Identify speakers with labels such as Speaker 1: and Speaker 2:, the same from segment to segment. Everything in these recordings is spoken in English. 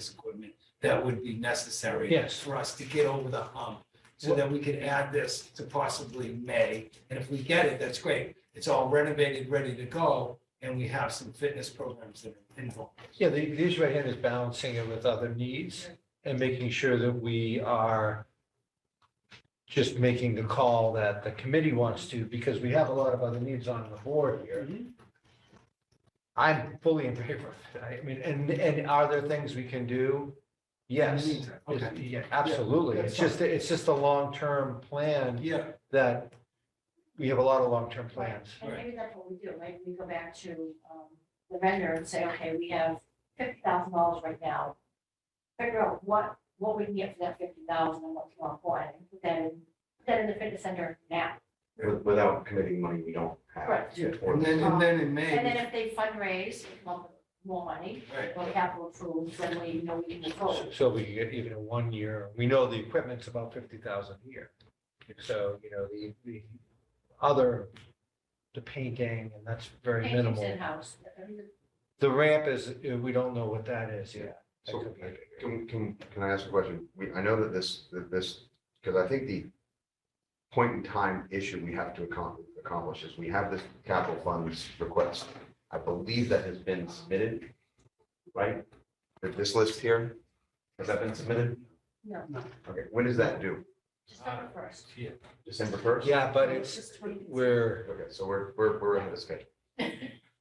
Speaker 1: this equipment that would be necessary.
Speaker 2: Yes.
Speaker 1: For us to get over the hump, so that we could add this to possibly May. And if we get it, that's great. It's all renovated, ready to go, and we have some fitness programs that are involved.
Speaker 2: Yeah, the, the issue at hand is balancing it with other needs and making sure that we are just making the call that the committee wants to, because we have a lot of other needs on the board here. I'm fully in favor of it. I mean, and, and are there things we can do? Yes.
Speaker 1: In the meantime,
Speaker 2: It's-
Speaker 1: okay.
Speaker 2: yeah, Absolutely.
Speaker 1: Yeah,
Speaker 2: It's
Speaker 1: that's
Speaker 2: just, it's just a long-term plan
Speaker 1: Yeah,
Speaker 2: that we have a lot of long-term plans.
Speaker 3: And
Speaker 1: Right.
Speaker 3: maybe that's what we do, right? We go back to um, the vendor and say, okay, we have fifty thousand dollars right now. Figure out what, what we can get for that fifty thousand and what's more important, and put that in, put that in the fitness center now.
Speaker 4: With- Without committing money we don't have.
Speaker 3: Correct.
Speaker 1: yeah. And then, and then in
Speaker 3: And then
Speaker 1: May,
Speaker 3: if they fundraise, they come up with more money,
Speaker 1: right,
Speaker 3: or capital approved, then we know we can move
Speaker 2: So-
Speaker 3: forward.
Speaker 2: So we can get even a one year, we know the equipment's about fifty thousand a year. So, you know, the, the other, the painting, and that's very
Speaker 3: Paintings
Speaker 2: minimal.
Speaker 3: in-house, everything-
Speaker 2: The ramp is, uh, we don't know what that is yet. That
Speaker 4: So
Speaker 2: could be a big area.
Speaker 4: can, can, can I ask a question? We, I know that this, that this, because I think the point in time issue we have to accom- accomplish is we have this capital funds request. I believe that has been submitted, right? That This list here, has that been submitted?
Speaker 3: no,
Speaker 4: Okay, when does that due?
Speaker 3: December first.
Speaker 1: yeah.
Speaker 4: December first?
Speaker 2: Yeah, Uh, but it's, we're,
Speaker 4: Okay, so we're, we're, we're ahead of schedule.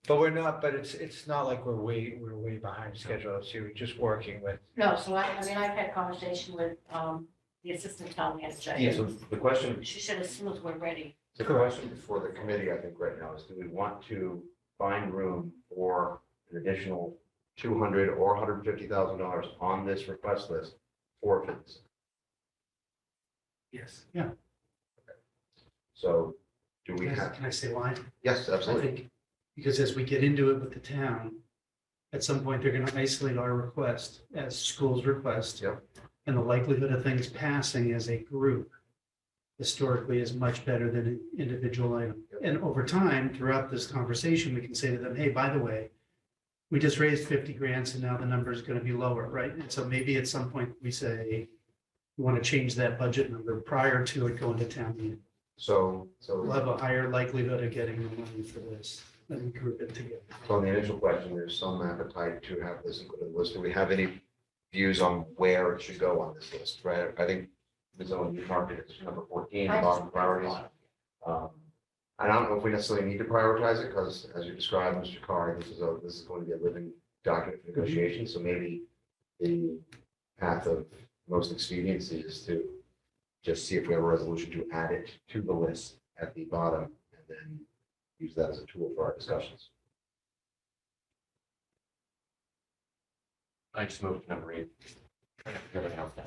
Speaker 2: but we're not, but it's, it's not like we're way, we're way behind schedule. So we're just working with.
Speaker 3: No, so I, I mean, I've had a conversation with um, the assistant town manager.
Speaker 4: So the question,
Speaker 3: She said as soon as we're ready.
Speaker 4: the question for the committee, I think right now is do we want to find room for an additional two hundred or hundred and fifty thousand dollars on this request list for fitness?
Speaker 1: yes.
Speaker 4: So do we
Speaker 5: Can I-
Speaker 4: have,
Speaker 5: can I say why?
Speaker 4: yes,
Speaker 5: I
Speaker 4: absolutely.
Speaker 5: think, because as we get into it with the town, at some point, they're gonna isolate our request as school's request.
Speaker 4: Yep.
Speaker 5: And the likelihood of things passing as a group historically is much better than an individual item.
Speaker 4: Yep.
Speaker 5: And over time, throughout this conversation, we can say to them, hey, by the way, we just raised fifty grants and now the number is gonna be lower, right? And so maybe at some point, we say, we wanna change that budget number prior to it going to town meeting
Speaker 4: So,
Speaker 5: will
Speaker 4: so
Speaker 5: have a higher likelihood of getting the money for this and group it together.
Speaker 4: on the initial question, there's some appetite to have this included in the list. Do we have any views on where it should go on this list, right? I think the zone you market is number fourteen, bottom priorities. Um, And I don't know if we necessarily need to prioritize it, because as you described, Mr. Carr, this is a, this is going to be a living document for negotiation, so maybe the path of most expediency is to just see if we have a resolution to add it to the list at the bottom, and then use that as a tool for our discussions. I just moved number eight.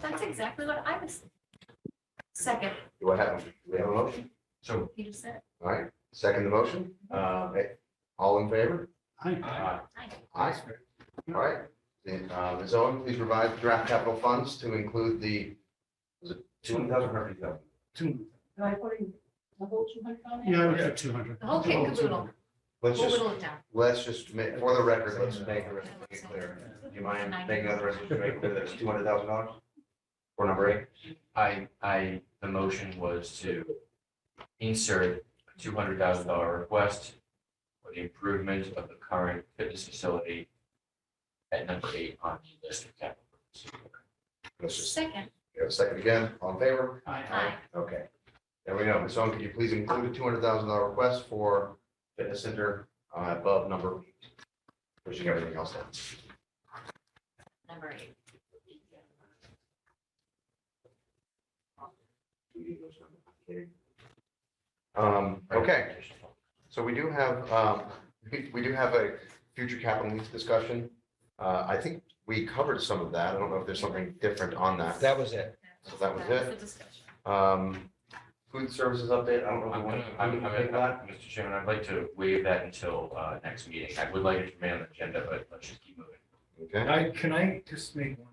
Speaker 3: That's exactly what I was. Second,
Speaker 4: Do I have, do we have a motion? So.
Speaker 3: you just said.
Speaker 4: All right, second the motion, Um, eh, all in favor?
Speaker 5: I,
Speaker 4: Aye. All right, then, uh, Ms. Owen, please provide draft capital funds to include the, was it two hundred thousand or fifty thousand?
Speaker 1: Two,
Speaker 3: Am I putting the whole two hundred on
Speaker 5: yeah, I
Speaker 3: there?
Speaker 5: would put two hundred.
Speaker 3: The whole kit and caboodle.
Speaker 4: Let's
Speaker 3: We'll
Speaker 4: just,
Speaker 3: whittle it down.
Speaker 4: let's just make, for the record, let's make the resolution clear. Do you mind making the resolution make clear that it's two hundred thousand dollars? For number eight?
Speaker 6: I, I, the motion was to insert a two hundred thousand dollar request for the improvement of the current fitness facility at number eight on the list of capital.
Speaker 4: Let's just,
Speaker 3: Second,
Speaker 4: we have a second again, all in favor?
Speaker 3: aye.
Speaker 4: Okay. There we go. Ms. Owen, could you please include a two hundred thousand dollar request for fitness center uh, above number eight? Pushing everything else down.
Speaker 3: number eight.
Speaker 4: Um, okay, so we do have, um, we, we do have a future capital needs discussion. Uh, I think we covered some of that. I don't know if there's something different on that.
Speaker 2: That was it.
Speaker 4: So that was it.
Speaker 3: the discussion.
Speaker 4: Um, food services update, I don't know. if
Speaker 6: I'm
Speaker 4: we want
Speaker 6: gonna,
Speaker 4: to-
Speaker 6: I'm,
Speaker 4: we can
Speaker 6: I'm,
Speaker 4: take that.
Speaker 6: Mr. Chairman, I'd like to waive that until, uh, next meeting. I would like it to remain on the agenda, but let's just keep moving.
Speaker 4: Okay,
Speaker 1: I, can I just make one?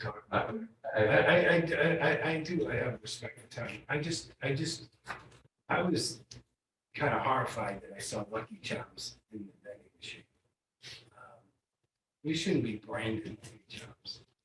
Speaker 1: comment?
Speaker 6: Uh,
Speaker 1: I, I, I- I, I, I do, I have respect for Tony. I just, I just, I was kind of horrified that I saw Lucky Charms in the vending machine. Um, We shouldn't be branding Lucky Charms.